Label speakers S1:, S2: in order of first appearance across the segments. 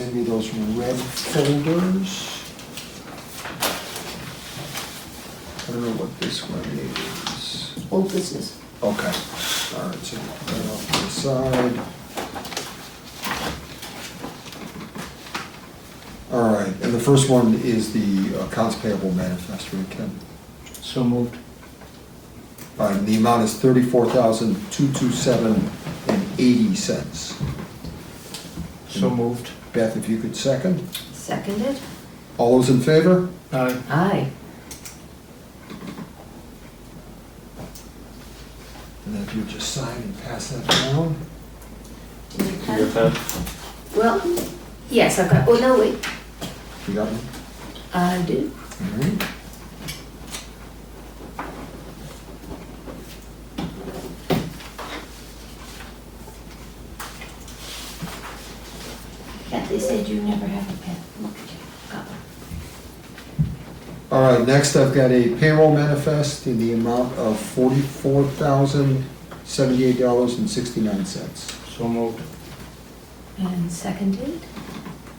S1: maybe those red folders. I don't know what this one is.
S2: Old business.
S1: Okay, all right, so right off to the side. All right, and the first one is the accounts payable manifest from Ken.
S3: So moved.
S1: Uh, The amount is thirty-four thousand, two, two, seven, and eighty cents.
S3: So moved.
S1: Beth, if you could second.
S2: Seconded?
S1: All those in favor?
S3: Aye.
S2: Aye.
S1: And then if you just sign and pass that down.
S4: Your pen?
S2: Well, yes, I've got, oh, no, wait,
S1: You got one?
S2: I do.
S1: All right.
S2: Yeah, they said you never have a pen. Look at you, got one.
S1: All right, next I've got a payroll manifest in the amount of forty-four thousand, seventy-eight dollars and sixty-nine cents.
S3: So moved.
S2: And seconded?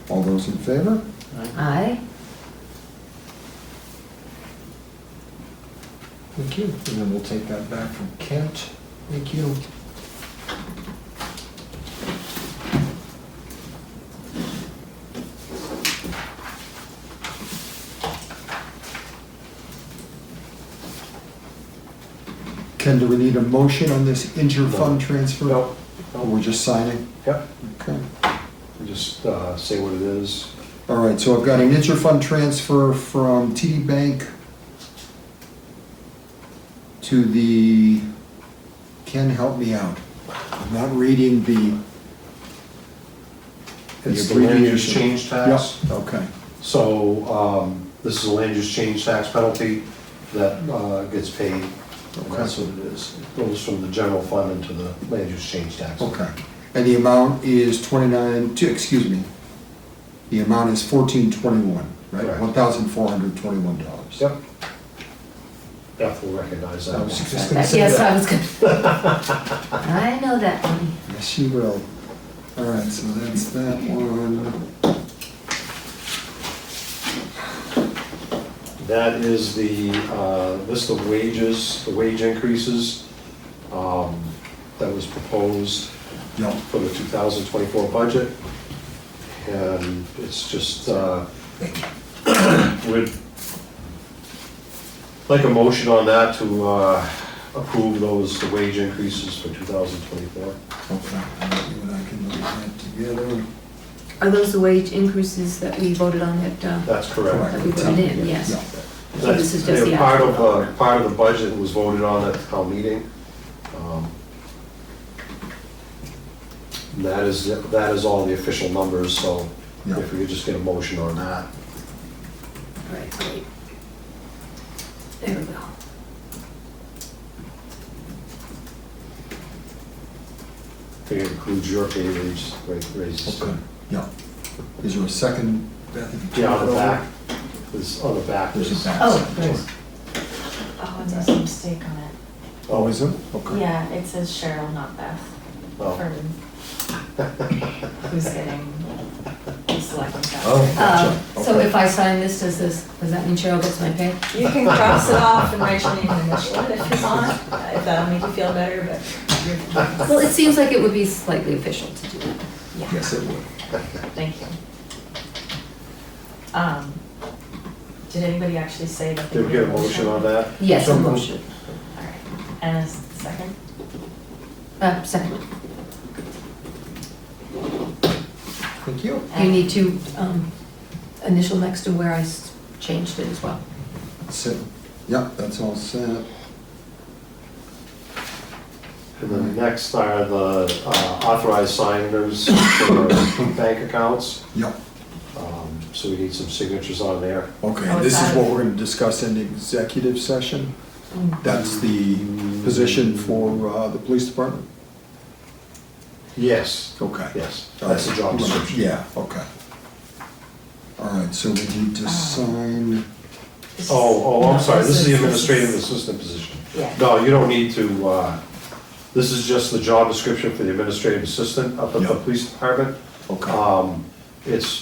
S1: All those in favor?
S3: Aye.
S2: Aye.
S1: Thank you. And then we'll take that back from Kent. Thank you. Ken, do we need a motion on this inter-fund transfer?
S4: No,
S1: Or we're just signing?
S4: yep,
S1: Okay.
S4: just uh, say what it is.
S1: All right, so I've got an inter-fund transfer from TD Bank to the, Ken, help me out. I'm not reading the.
S4: It's
S1: It's
S4: the land use
S1: abbreviation.
S4: change tax.
S1: Yeah, okay,
S4: So um, this is a land use change tax penalty that uh, gets paid. And That's what it is. It goes from the general fund into the land use change tax.
S1: okay. And the amount is twenty-nine, two, excuse me. The amount is fourteen twenty-one, right?
S4: Correct.
S1: One thousand four hundred twenty-one dollars.
S4: Yep. Beth will recognize that.
S1: I
S4: one.
S1: was just gonna say
S2: Yes,
S1: that.
S2: I was gonna. I know that one.
S1: Yes, you will. All right, so that's that one.
S4: That is the uh, list of wages, the wage increases um, that was proposed
S1: No,
S4: for the 2024 budget. And it's just, uh, we'd like a motion on that to uh, approve those, the wage increases for 2024.
S1: Okay, and I can look at that together.
S5: Are those the wage increases that we voted on at, uh,
S4: That's correct.
S5: that we voted in, yes?
S1: Yeah.
S5: So this is just the
S4: They're Part of,
S5: actual.
S4: uh, part of the budget was voted on at the town meeting. Um, and That is, that is all the official numbers, so
S1: Yeah.
S4: if we could just get a motion on that.
S5: Right, right. There we go.
S4: I think it includes your pay raise, ra- raises.
S1: Okay, yeah. Is there a second? Beth, if you
S4: Yeah, on
S1: turn it
S4: the
S1: over?
S4: back, this, on the back.
S1: There's
S4: is-
S1: a back.
S2: Oh,
S1: section.
S2: there's-
S6: Oh, there's a mistake on it.
S1: Oh, is there? Okay.
S6: Yeah, it says Cheryl, not Beth.
S4: Oh.
S6: For who's getting the Um, selectmen's
S4: Oh.
S2: Uh, so
S1: Okay.
S2: if I sign this, does this, does that mean Cheryl gets my pay?
S6: You can cross it off and write your name and initial it if you want, if that'll make you feel better, but
S2: Well, it seems like it would be slightly official to do that.
S6: yeah,
S1: Yes, it would.
S6: thank you. Um, did anybody actually say that? they
S4: Did we get a
S6: were-
S4: motion on that?
S2: Yes, a
S4: Some-
S2: motion.
S6: All right. And a second?
S2: Uh, second.
S1: Thank you.
S2: You need to, um, initial next to where I s- changed it as well.
S1: Set, yeah, that's all set.
S4: And then next are the uh, authorized signers for bank accounts.
S1: Yeah,
S4: Um, So we need some signatures on there.
S1: okay,
S6: Oh,
S1: this
S6: it's
S1: is
S6: out.
S1: what we're gonna discuss in the executive session. That's the position for uh, the police department?
S4: Yes,
S1: Okay.
S4: yes, that's the job description.
S1: Yeah, okay. All right, so we need to sign,
S6: This is-
S4: Oh, oh, I'm
S6: no,
S4: sorry, this is the administrative assistant position.
S6: Yeah.
S4: No, you don't need to, uh, this is just the job description for the administrative assistant up at the
S1: Yeah.
S4: Uh, police department.
S1: okay.
S4: Um, It's